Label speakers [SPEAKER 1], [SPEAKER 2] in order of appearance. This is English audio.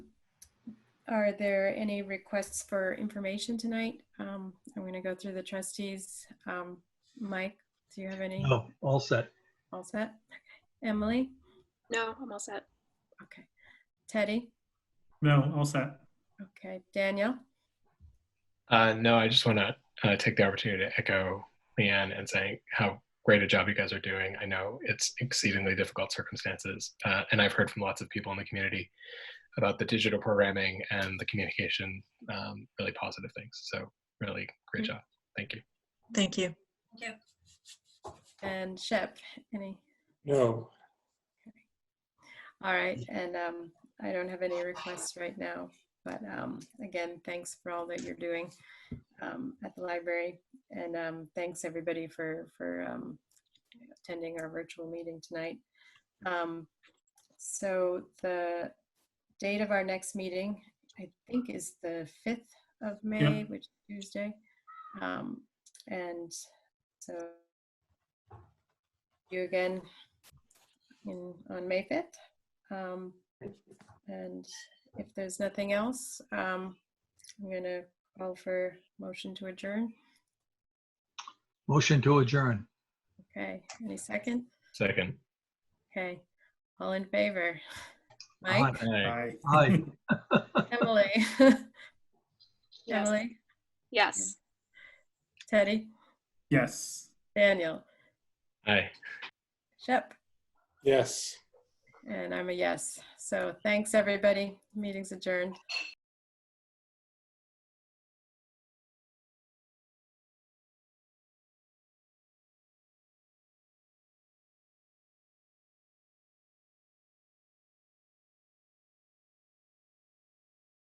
[SPEAKER 1] Are there any requests for information tonight? Um, I'm going to go through the trustees. Um, Mike, do you have any?
[SPEAKER 2] No, Oh, all set.
[SPEAKER 1] All set? Emily?
[SPEAKER 3] No, I'm all set.
[SPEAKER 1] Okay. Teddy?
[SPEAKER 4] No, all set.
[SPEAKER 1] Okay. Danielle?
[SPEAKER 5] Uh, no, I just want to uh, take the opportunity to echo Leanne and saying how great a job you guys are doing. I know it's exceedingly difficult circumstances, uh, and I've heard from lots of people in the community about the digital programming and the communication, um, really positive things. So, really great job. Thank you.
[SPEAKER 6] Thank you.
[SPEAKER 1] And Shep? Any?
[SPEAKER 7] No,
[SPEAKER 1] All right. And um, I don't have any requests right now. But um, again, thanks for all that you're doing um, at the library. And um, thanks everybody for, for um, attending our virtual meeting tonight. Um, so the date of our next meeting, I think, is the 5th of May, which is Tuesday. Um, and so you again in, on May 5th. Um, and if there's nothing else, um, I'm going to call for motion to adjourn.
[SPEAKER 2] Motion to adjourn.
[SPEAKER 1] Okay, any second?
[SPEAKER 5] Second.
[SPEAKER 1] Okay, all in favor?
[SPEAKER 2] Aye.
[SPEAKER 1] Mike,
[SPEAKER 5] Aye.
[SPEAKER 4] Bye.
[SPEAKER 2] Aye.
[SPEAKER 1] Emily,
[SPEAKER 3] Yes.
[SPEAKER 1] Emily,
[SPEAKER 3] Yes.
[SPEAKER 1] Teddy,
[SPEAKER 4] Yes.
[SPEAKER 1] Daniel,
[SPEAKER 5] Aye.
[SPEAKER 1] Shep,
[SPEAKER 7] yes.
[SPEAKER 1] and I'm a yes. So thanks, everybody. Meeting's adjourned.